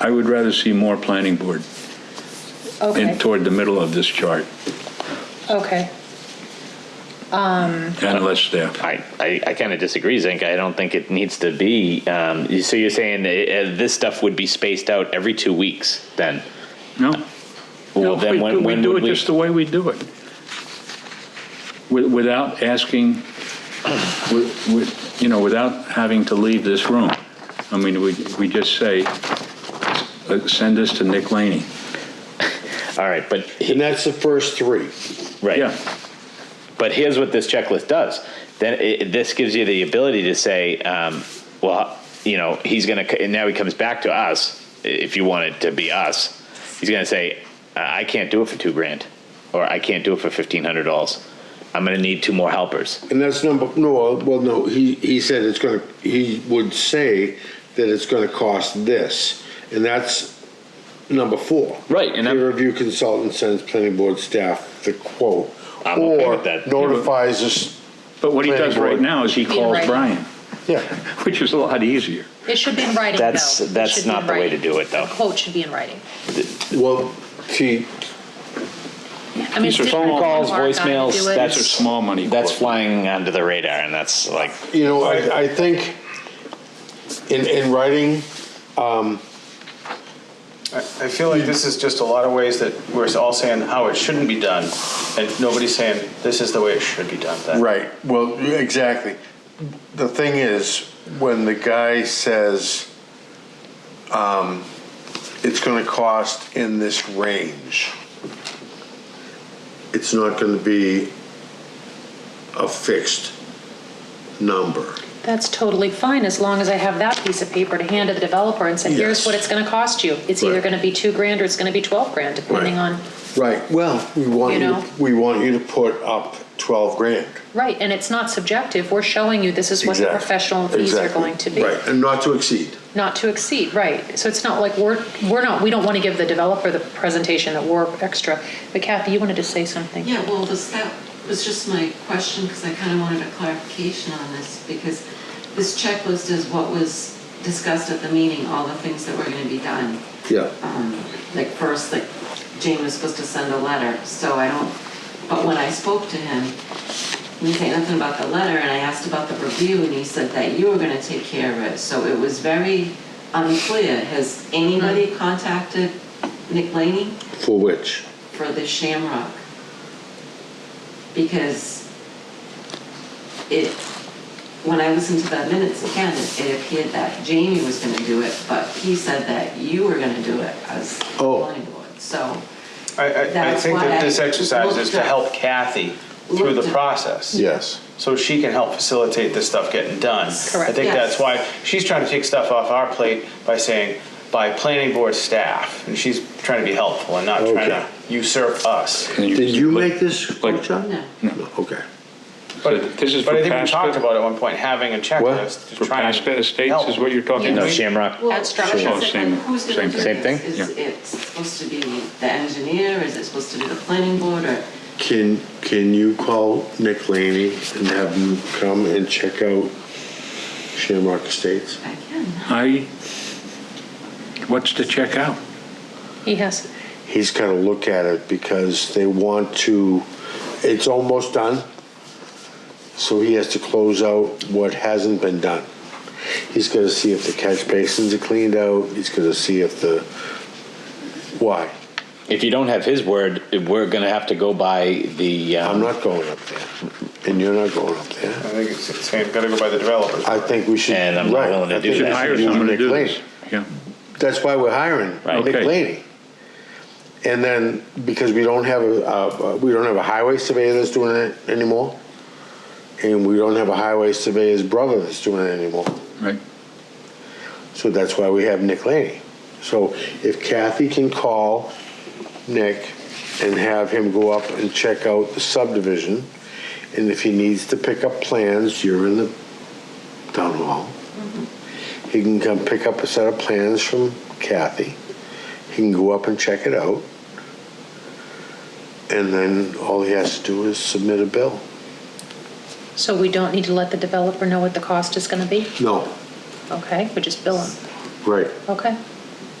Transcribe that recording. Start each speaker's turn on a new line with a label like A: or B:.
A: I would rather see more planning board in,
B: Okay,
A: toward the middle of this chart,
B: okay.
A: and less there.
C: I, I, I kind of disagree, Zink. I don't think it needs to be. Um, you- so you're saying uh, uh, this stuff would be spaced out every two weeks then?
A: No? No,
C: Well, then
A: we
C: when-
A: do-
C: when
A: We
C: would
A: do it
C: we-
A: just the way we do it. Wi- Without asking, wi- wi- you know, without having to leave this room. I mean, we, we just say, uh, send this to Nick Laney.
C: All right, but he-
D: And that's the first three.
C: right.
A: Yeah,
C: But here's what this checklist does. Then it, this gives you the ability to say, um, well, you know, he's going to, and now he comes back to us, if you want it to be us. He's going to say, "Uh, I I can't do it for two grand, or I can't do it for $1,500. I'm going to need two more helpers.
D: And that's number, no, well, no, he, he said it's gonna, he would say that it's gonna cost this. And that's number four.
C: Right, and I'm-
D: Peer review consultant sends planning board staff the quote.
C: I'm okay with that.
D: Or notifies us,
A: but what he does
D: Planning board.
A: right now is he
B: Should be in
A: calls
B: writing.
A: Brian,
D: yeah.
A: which is a lot easier.
B: It should be in writing, though.
C: That's-
B: It
C: that's
B: should be in
C: not the way
B: writing.
C: to do it, though.
B: The quote should be in writing.
D: Well, see,
B: I mean,
A: These are
B: it's
A: phone
B: different
A: calls,
B: from our guy to
C: voicemails,
B: do it.
C: that's-
A: These are small money.
C: That's
A: quotes.
C: flying under the radar, and that's like,
D: you know, I, I think in, in writing,
E: I I feel like this is just a lot of ways that we're all saying how it shouldn't be done, and nobody's saying this is the way it should be done. That-
F: Right, well, exactly. The thing is, when the guy says, um, it's gonna cost in this range,
D: it's not gonna be a fixed number.
B: That's totally fine, as long as I have that piece of paper to hand to the developer and say, here's
D: Yes.
B: what it's gonna cost you. It's either
D: Right.
B: gonna be two grand or it's gonna be 12 grand, depending
D: Right.
B: on,
D: Right, well, we want
B: You
D: you,
B: know?
D: to- we want you to put up twelve grand.
B: right, and it's not subjective. We're showing you this is what the
D: Exact-
B: professional fees are
D: exactly.
B: going to be.
D: Right, and not to exceed.
B: Not to exceed, right. So it's not like we're, we're not, we don't wanna give the developer the presentation that we're extra. But Kathy, you wanted to say something?
G: Yeah, well, was that, was just my question, because I kind of wanted a clarification on this, because this checklist is what was discussed at the meeting, all the things that were going to be done.
D: Yeah.
G: Um, Like first, like Jane was supposed to send a letter, so I don't, but when I spoke to him, he didn't say nothing about the letter, and I asked about the review, and he said that you were going to take care of it. So it was very unclear. Has anybody contacted Nick Laney?
D: For which?
G: for the Shamrock. Because it, when I listened to the minutes again, it appeared that Jamie was gonna do it, but he said that you were gonna do it as
D: Oh.
G: planning board, so.
E: I, I, I
G: That's
E: think that
G: why
E: this
G: I
E: exercise is to
G: looked at-
E: help Kathy through
G: looked
E: the
G: at-
E: process.
D: Yes.
E: So she can help facilitate this stuff getting done. I
B: Correct.
E: think
G: Yes.
E: that's why she's trying to take stuff off our plate by saying, by planning board staff, and she's trying to be helpful and not trying
D: Okay.
E: to usurp us.
D: Did you make this,
A: like-
D: Chuck?
G: No.
D: No, okay.
A: But this is
E: But
A: for
E: I think we
A: past-
E: talked about at one point, having a
D: What?
E: checklist to
A: For
E: try and
A: past estates
E: help.
A: is what you're talking
C: no,
A: about?
C: Shamrock.
G: Well,
B: That's structure.
G: because
A: Oh,
G: it-
A: same-
G: who's gonna
A: same thing.
G: do this?
C: Same
G: Is it supposed to be the engineer, is it supposed to be the planning board, or?
D: Can, can you call Nick Laney and have him come and check out Shamrock Estates?
G: I can.
A: I, what's to check out?
B: He has,
D: He's gotta look at it because they want to, it's almost done. So he has to close out what hasn't been done. He's gotta see if the catch basins are cleaned out, he's gotta see if the, why?
C: If you don't have his word, we're going to have to go by the. Um,
D: I'm not going up there, and you're not going up there.
E: I think it's, it's gotta go by the developers.
D: I think we should.
C: And I'm not
D: right,
C: willing to
D: I
C: do
A: You
D: think
A: should
C: that.
D: we
A: hire
D: use
A: someone to
D: Nick
A: do
D: Laney.
A: this. Yeah.
D: That's why we're hiring
C: Right.
D: Nick
A: Okay.
D: Laney. And then, because we don't have a, uh, we don't have a highway surveyor that's doing it anymore, and we don't have a highway surveyor's brother that's doing it anymore,
A: Right.
D: so that's why we have Nick Laney. So if Kathy can call Nick and have him go up and check out the subdivision, and if he needs to pick up plans, you're in the town hall. He can come pick up a set of plans from Kathy. He can go up and check it out. And then all he has to do is submit a bill.
B: so we don't need to let the developer know what the cost is gonna be?
D: No,
B: Okay, we just bill him,
D: right.
B: okay?